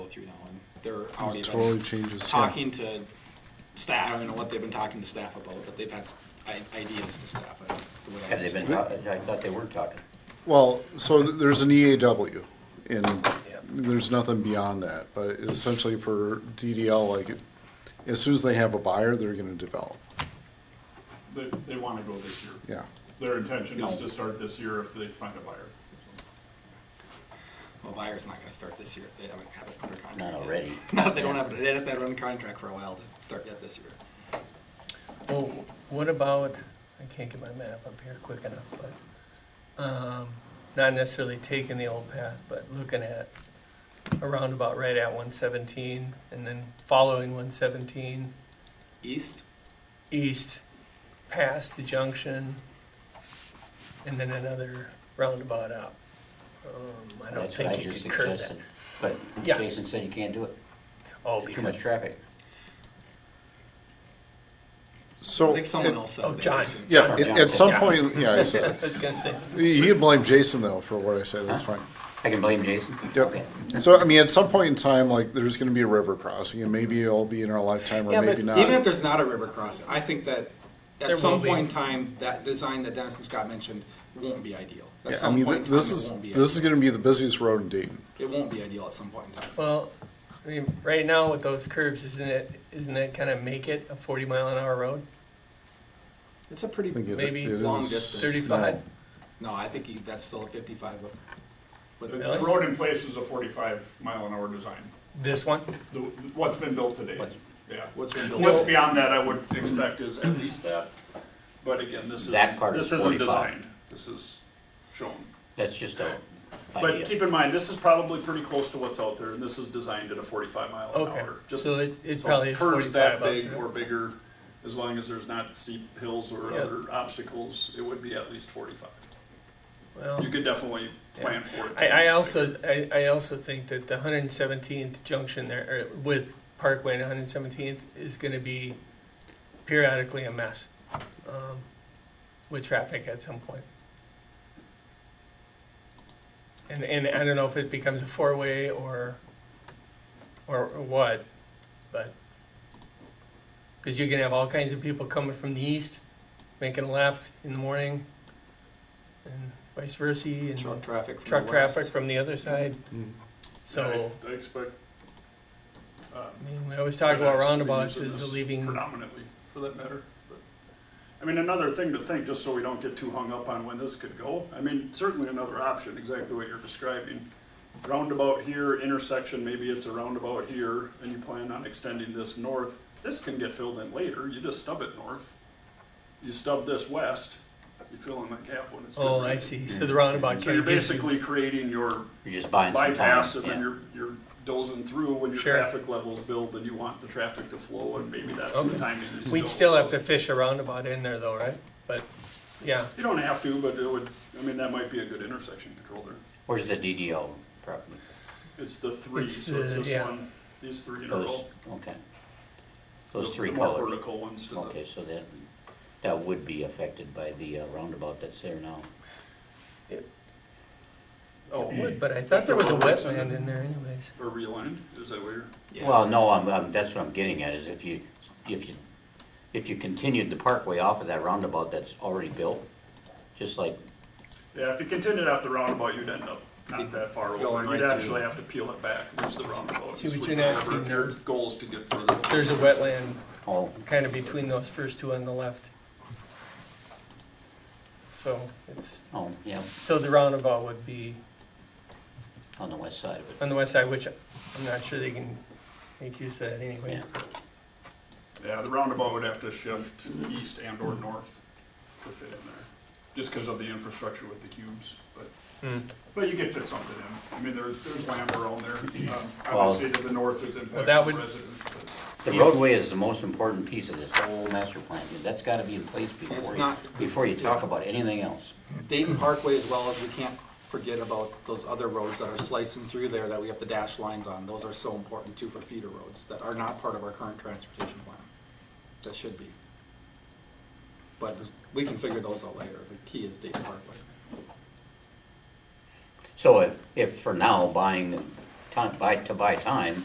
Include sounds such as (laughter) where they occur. through that one. They're out It even totally changes. yeah. talking to staff. I don't know what they've been talking to staff about, but they've had s- i- ideas to staff. I think, the way I Have they been understand talking? I thought they were talking. Well, so th- there's an E EAW, and there's nothing beyond that, but essentially for DDL, like, it- as soon as they have a buyer, they're gonna develop, They, they want to go this year. yeah. Their intention is to start this year if they find a buyer. it. Well, buyer's not going to start this year if they haven't had it under contract. Not yet. already. (laughs) Not if they don't have it. They'd have to have it under contract for a while to start yet this year. Well, what about, I can't get my map up here quick enough, but, um, not necessarily taking the old path, but looking at a roundabout right at one seventeen and then following one seventeen East, east past the junction and then another roundabout up. Um, I don't That's what I think you just could curb that. suggested. But Yeah. Jason said you can't do it. Oh, Too much because, I traffic. So, think someone at- else said. Oh, that. John. yeah, at- at some Yeah. point, yeah, (laughs) I said, I was gonna say, you can blame Jason though for what I said, that's fine. I can blame Jason. Okay. Yep, so I mean, at some point in time, like, there's gonna be a river crossing, and maybe it'll be in our lifetime, Yeah, or but maybe not. Even if there's not a river crossing, I think that There at some will be. point in time, that design that Dennis and Scott mentioned won't be ideal. At Yeah, I some mean, point th- in time, this it is, won't be this is ideal. gonna be the busiest road in Dayton. It won't be ideal at some point in time. well, I mean, right now with those curves, isn't it, isn't it kind of make it a forty mile an hour road? It's a I think pretty, it- Maybe it long is- distance. 35. no. no, I think you- that's still a fifty-five, but- but. The Really? the road in place is a forty-five mile an hour design, This one? the, what's been built today. What- Yeah. What's been built? What's beyond that, I would expect is at least that, but again, this is, That part this is isn't 45. designed, this is shown. That's just a But idea. keep in mind, this is probably pretty close to what's out there, and this is designed at a forty-five mile an Okay, hour. Just so it, it So probably is curves forty-five that bucks. big or bigger, as long as there's not steep hills or Yeah. other obstacles, it would be at least forty-five. Well, You could definitely plan for it. I, I also, I, I also think that the hundred and seventeenth junction there, or with Parkway and one hundred and seventeenth is gonna be periodically a mess, um, with traffic at some point. And, and I don't know if it becomes a four-way or, or or what, but, cause you're gonna have all kinds of people coming from the east, making a left in the morning, and vice versa, and Truck traffic. from the truck traffic west. from the other side. Mm. So, I I expect. um, I mean, we always talk about FedEx roundabouts reusing as this leaving, Predominantly, for that matter. but- I mean, another thing to think, just so we don't get too hung up on when this could go, I mean, certainly another option, exactly what you're describing. Roundabout here, intersection, maybe it's a roundabout here, and you plan on extending this north. This can get filled in later, you just stub it north. You stub this west, you fill in the gap when it's. oh, I see, so the roundabout So you're kind of gives you, basically creating your You're just buying some time. bypass and then Yeah. you're, you're dozing through when your Sure. traffic levels build and you want the traffic to flow and maybe that's Okay. the timing. you we'd build. still have to fish a roundabout in there though, right? But, yeah, You don't have to, but it would, I mean, that might be a good intersection control there. Where's the DDL property? It's the three, It's so it's the- this yeah. one, these three in a Those, row. okay. The- Those three The more colors. vertical ones to the, Okay, so that, that would be affected by the uh, roundabout that's there now. oh, it would, but I thought there was a wetland in there anyways. or realigned, is that where you're? Yeah. Well, no, I'm, I'm, that's what I'm getting at, is if you, if you, if you continued the parkway off of that roundabout that's already built, just like, Yeah, if you continued off the roundabout, you'd end up not that far Going over. right You'd through. actually have to peel it back, lose the roundabout. See, but sweep you're it not over. seeing Your there's- Goal is to get further. There's a wetland oh, kind of between those first two on the left. So it's, oh, yeah, so the roundabout would be on the west side of it, on the west side, which I'm not sure they can make use of that anyway. yeah. Yeah, the roundabout would have to shift east and or north to fit in there, just because of the infrastructure with the cubes, but, Hmm. but you could fit something in. I mean, there's, there's land around there. Um, Well- Obviously, to the north is Well, impacted that would- residents, but The roadway is the most important piece of this whole master plan, and that's gotta be in place before you, not- before you talk about anything else. Dayton Parkway as well, as we can't forget about those other roads that are slicing through there that we have the dash lines on. Those are so important too for feeder roads that are not part of our current transportation plan. That should be. But we can figure those out later. The key is Dayton Parkway. So if, if for now, buying, the time, buy, to buy time,